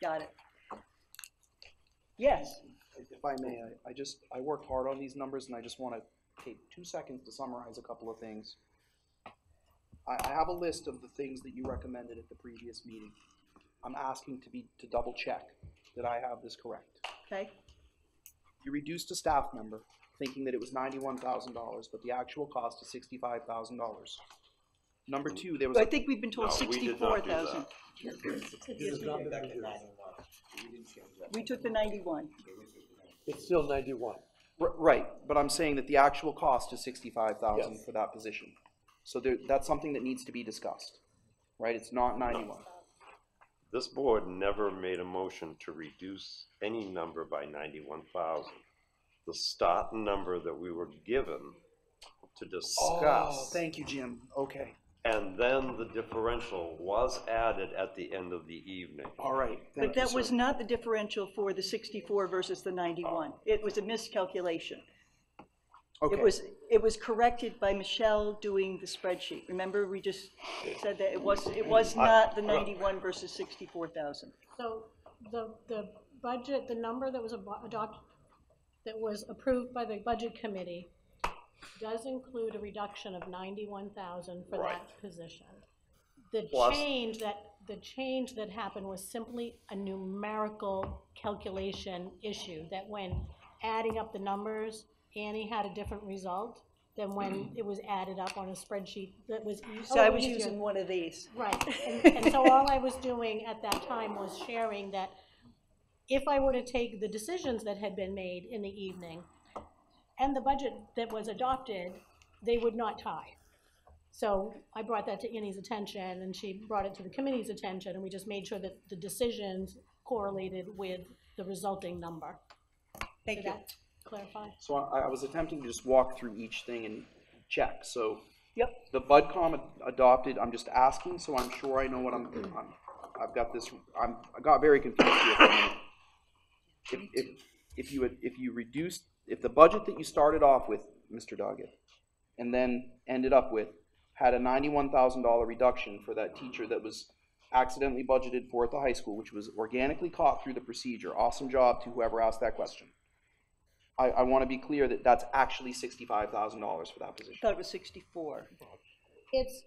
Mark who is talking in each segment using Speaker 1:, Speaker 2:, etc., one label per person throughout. Speaker 1: Got it. Yes,
Speaker 2: If I may, I- I just, I worked hard on these numbers, and I just want to take two seconds to summarize a couple of things. I, I have a list of the things that you recommended at the previous meeting. I'm asking to be, to double-check that I have this correct.
Speaker 1: okay,
Speaker 2: You reduced a staff member, thinking that it was ninety-one thousand dollars, but the actual cost is sixty-five thousand dollars. Number two, there was,
Speaker 1: I
Speaker 2: a-
Speaker 1: think we've been told
Speaker 3: No, we did not
Speaker 1: sixty-four
Speaker 3: do that.
Speaker 1: thousand.
Speaker 4: Yes, we did.
Speaker 1: We took the ninety-one.
Speaker 4: It's still ninety-one.
Speaker 2: r- right, but I'm saying that the actual cost is sixty-five thousand
Speaker 4: Yes.
Speaker 2: for that position. So there, that's something that needs to be discussed, right? It's not ninety-one.
Speaker 3: This board never made a motion to reduce any number by ninety-one thousand. The start number that we were given to
Speaker 2: Oh,
Speaker 3: discuss,
Speaker 2: thank you, Jim. Okay,
Speaker 3: and then the differential was added at the end of the evening.
Speaker 2: all right.
Speaker 1: But
Speaker 2: thank you,
Speaker 1: that
Speaker 2: sir.
Speaker 1: was not the differential for the sixty-four versus the ninety-one.
Speaker 3: Oh.
Speaker 1: It was a miscalculation.
Speaker 2: Okay.
Speaker 1: It was, it was corrected by Michelle doing the spreadsheet. Remember, we just said that it was, it was not the ninety-one versus sixty-four thousand.
Speaker 5: So the, the budget, the number that was abo- adopt, that was approved by the budget committee does include a reduction of ninety-one thousand for that
Speaker 3: Right.
Speaker 5: position. The
Speaker 3: Plus-
Speaker 5: change that, the change that happened was simply a numerical calculation issue, that when adding up the numbers, Annie had a different result than when it was added up on a spreadsheet that was. e-
Speaker 1: So Mm-hmm. I
Speaker 5: oh,
Speaker 1: was
Speaker 5: easier.
Speaker 1: using one of these.
Speaker 5: Right, and, and so all I was doing at that time was sharing that if I were to take the decisions that had been made in the evening and the budget that was adopted, they would not tie. So I brought that to Annie's attention, and she brought it to the committee's attention, and we just made sure that the decisions correlated with the resulting number.
Speaker 1: Thank
Speaker 5: Did
Speaker 1: you.
Speaker 5: that clarify?
Speaker 2: So I, I was attempting to just walk through each thing and check, so.
Speaker 1: Yep.
Speaker 2: The BudCom ad- adopted, I'm just asking, so I'm sure I know what I'm, I'm, I've got this, I'm, I got very confused here. for a minute. If, if, if you, had- if you reduced, if the budget that you started off with, Mr. Doggett, and then ended up with, had a ninety-one thousand dollar reduction for that teacher that was accidentally budgeted for at the high school, which was organically caught through the procedure, awesome job to whoever asked that question. I, I want to be clear that that's actually sixty-five thousand dollars for that position.
Speaker 1: Thought it was sixty-four.
Speaker 5: It's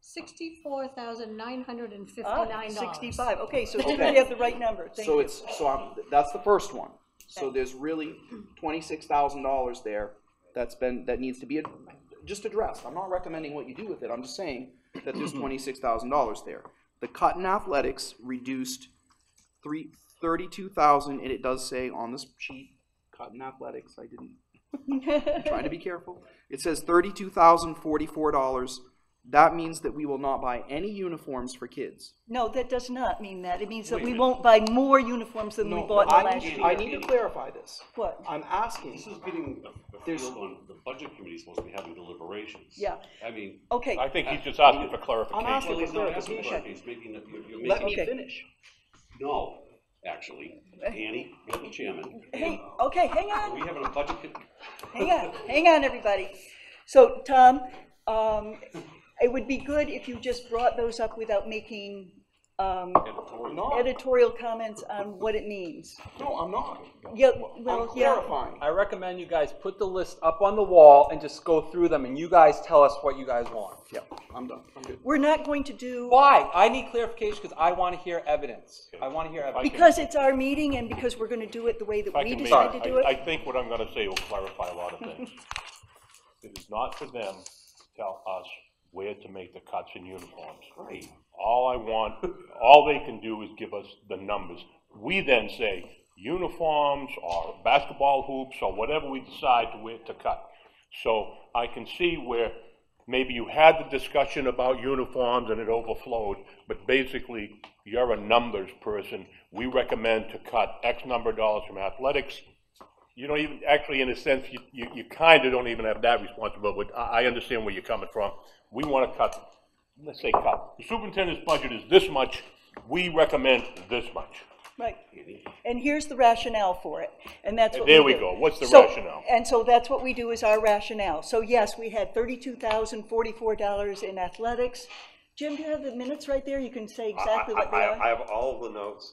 Speaker 5: sixty-four thousand nine hundred and
Speaker 1: Ah,
Speaker 5: fifty-nine dollars.
Speaker 1: Sixty-five, okay, so we
Speaker 2: Okay.
Speaker 1: have the right number, thank
Speaker 2: So
Speaker 1: you.
Speaker 2: it's, so I'm, that's the first one. So
Speaker 5: Okay.
Speaker 2: there's really twenty-six thousand dollars there that's been, that needs to be ad- just addressed. I'm not recommending what you do with it, I'm just saying that there's twenty-six thousand dollars there. The cut in athletics reduced three, thirty-two thousand, and it does say on this sheet, cut in athletics, I didn't trying to be careful. It says thirty-two thousand forty-four dollars. That means that we will not buy any uniforms for kids.
Speaker 1: No, that does not mean that. It means that
Speaker 3: Wait a
Speaker 1: we
Speaker 3: minute.
Speaker 1: won't buy more uniforms than we bought in
Speaker 2: I,
Speaker 1: last
Speaker 2: I
Speaker 1: year.
Speaker 2: need to clarify this.
Speaker 1: What?
Speaker 2: I'm
Speaker 6: This
Speaker 2: asking,
Speaker 6: is getting Uh, the
Speaker 2: There's-
Speaker 6: field on, the budget committee is supposed to be having deliberations.
Speaker 1: Yeah.
Speaker 6: I mean.
Speaker 1: Okay,
Speaker 7: I think he's just asking for
Speaker 2: I'm
Speaker 7: clarification.
Speaker 2: asking
Speaker 6: Well, he's
Speaker 2: for
Speaker 6: not asking for
Speaker 2: clarification.
Speaker 6: it, he's making, the- you're- you're
Speaker 2: Let me
Speaker 6: making,
Speaker 1: Okay.
Speaker 2: finish.
Speaker 6: no, actually, Annie, you're the chairman.
Speaker 1: hey, okay, hang on.
Speaker 6: Are we having a budget? co-
Speaker 1: hang on, hang on, everybody. So, Tom, um, it would be good if you just brought those up without making, um,
Speaker 2: I'm not,
Speaker 1: editorial comments on what it means.
Speaker 2: no, I'm not.
Speaker 1: Yeah,
Speaker 2: I'm
Speaker 1: well, yeah,
Speaker 2: clarifying.
Speaker 8: I recommend you guys put the list up on the wall and just go through them, and you guys tell us what you guys want.
Speaker 2: Yeah, I'm done, I'm good.
Speaker 1: we're not going to do,
Speaker 8: Why? I need clarification because I want to hear evidence. I want to hear evidence.
Speaker 1: because it's our meeting and because we're gonna do it the way that
Speaker 7: If I
Speaker 1: we
Speaker 7: can make-
Speaker 1: decide to do
Speaker 7: I I
Speaker 1: it.
Speaker 7: think what I'm gonna say will clarify a lot of things. It is not for them to tell us where to make the cuts in uniforms.
Speaker 6: Right.
Speaker 7: All I want, all they can do is give us the numbers. We then say uniforms or basketball hoops or whatever we decide to where to cut. So I can see where maybe you had the discussion about uniforms and it overflowed, but basically you're a numbers person. We recommend to cut X number of dollars from athletics. You don't even, actually, in a sense, you, you, you kind of don't even have that responsibility, but I, I understand where you're coming from. We want to cut let's say cut, the superintendent's budget is this much, we recommend this much.
Speaker 1: Right. And here's the rationale for it, and that's what we do.
Speaker 7: There we go. What's the
Speaker 1: So-
Speaker 7: rationale?
Speaker 1: And so that's what we do is our rationale. So yes, we had thirty-two thousand forty-four dollars in athletics. Jim, do you have the minutes right there? You can say
Speaker 3: I,
Speaker 1: exactly what they
Speaker 3: I,
Speaker 1: are.
Speaker 3: I have all the notes,